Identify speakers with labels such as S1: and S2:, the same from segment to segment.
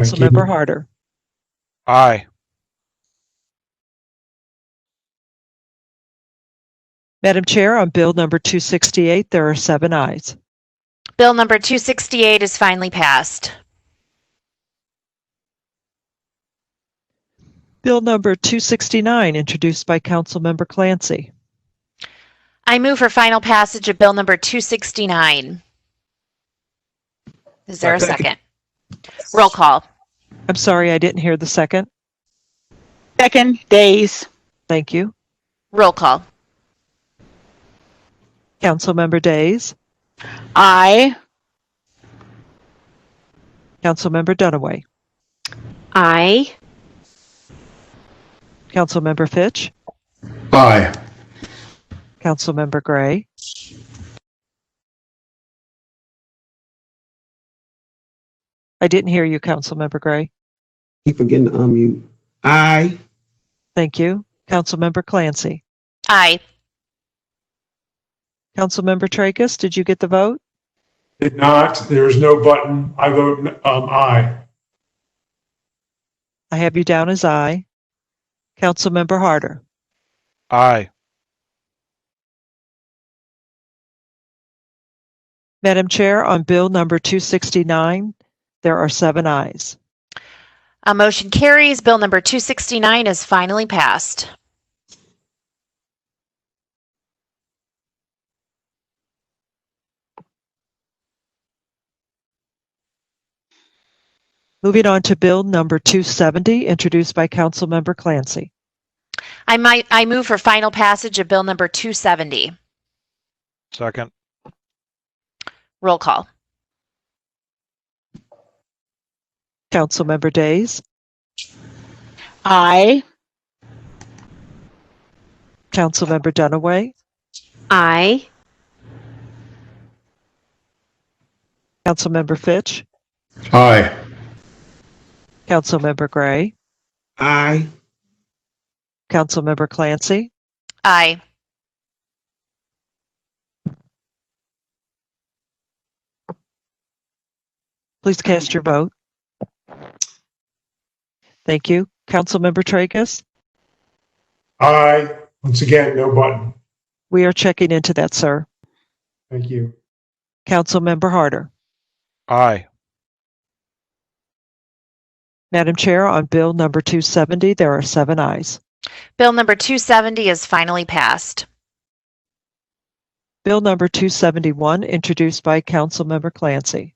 S1: Councilmember Harder.
S2: Aye.
S1: Madam Chair, on Bill number 268, there are seven ayes.
S3: Bill number 268 is finally passed.
S1: Bill number 269, introduced by Councilmember Clancy.
S3: I move for final passage of Bill number 269. Is there a second? Roll call.
S1: I'm sorry, I didn't hear the second.
S4: Second, Days.
S1: Thank you.
S3: Roll call.
S1: Councilmember Days,
S4: Aye.
S1: Councilmember Dunaway,
S3: Aye.
S1: Councilmember Fitch,
S5: Aye.
S1: Councilmember Gray, I didn't hear you, Councilmember Gray.
S6: Keep forgetting to unmute. Aye.
S1: Thank you. Councilmember Clancy,
S3: Aye.
S1: Councilmember Tracus, did you get the vote?
S7: Did not, there is no button. I vote um, aye.
S1: I have you down as aye. Councilmember Harder,
S2: Aye.
S1: Madam Chair, on Bill number 269, there are seven ayes.
S3: A motion carries. Bill number 269 is finally passed.
S1: Moving on to Bill number 270, introduced by Councilmember Clancy.
S3: I might, I move for final passage of Bill number 270.
S2: Second.
S3: Roll call.
S1: Councilmember Days,
S4: Aye.
S1: Councilmember Dunaway,
S3: Aye.
S1: Councilmember Fitch,
S5: Aye.
S1: Councilmember Gray,
S6: Aye.
S1: Councilmember Clancy,
S3: Aye.
S1: please cast your vote. Thank you. Councilmember Tracus,
S7: Aye. Once again, no button.
S1: we are checking into that, sir.
S7: Thank you.
S1: Councilmember Harder.
S2: Aye.
S1: Madam Chair, on Bill number 270, there are seven ayes.
S3: Bill number 270 is finally passed.
S1: Bill number 271, introduced by Councilmember Clancy.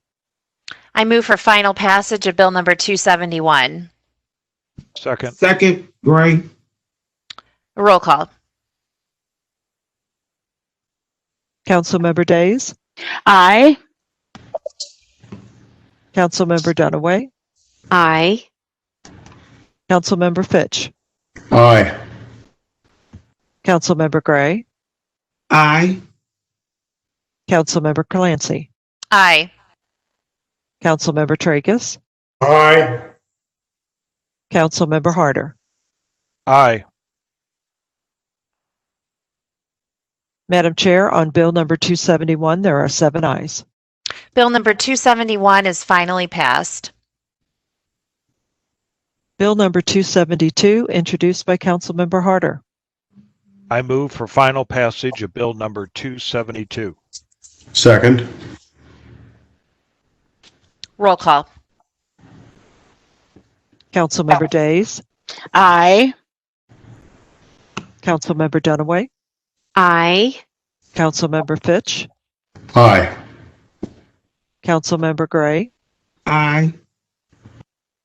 S3: I move for final passage of Bill number 271.
S2: Second.
S6: Second, Gray.
S3: Roll call.
S1: Councilmember Days,
S4: Aye.
S1: Councilmember Dunaway,
S3: Aye.
S1: Councilmember Fitch,
S5: Aye.
S1: Councilmember Gray,
S6: Aye.
S1: Councilmember Clancy,
S3: Aye.
S1: Councilmember Tracus,
S7: Aye.
S1: Councilmember Harder.
S2: Aye.
S1: Madam Chair, on Bill number 271, there are seven ayes.
S3: Bill number 271 is finally passed.
S1: Bill number 272, introduced by Councilmember Harder.
S2: I move for final passage of Bill number 272.
S5: Second.
S3: Roll call.
S1: Councilmember Days,
S4: Aye.
S1: Councilmember Dunaway,
S3: Aye.
S1: Councilmember Fitch,
S5: Aye.
S1: Councilmember Gray,
S6: Aye.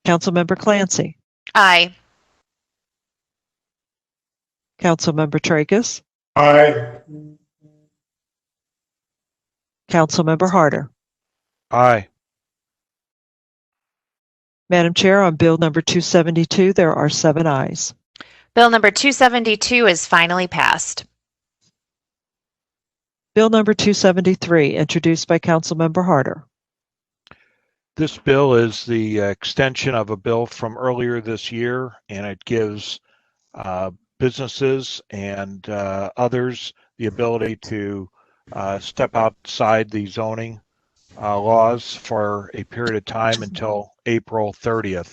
S1: Councilmember Clancy,
S3: Aye.
S1: Councilmember Tracus,
S7: Aye.
S1: Councilmember Harder.
S2: Aye.
S1: Madam Chair, on Bill number 272, there are seven ayes.
S3: Bill number 272 is finally passed.
S1: Bill number 273, introduced by Councilmember Harder.
S2: This bill is the uh, extension of a bill from earlier this year, and it gives uh, businesses and uh, others the ability to uh, step outside the zoning uh, laws for a period of time until April 30th.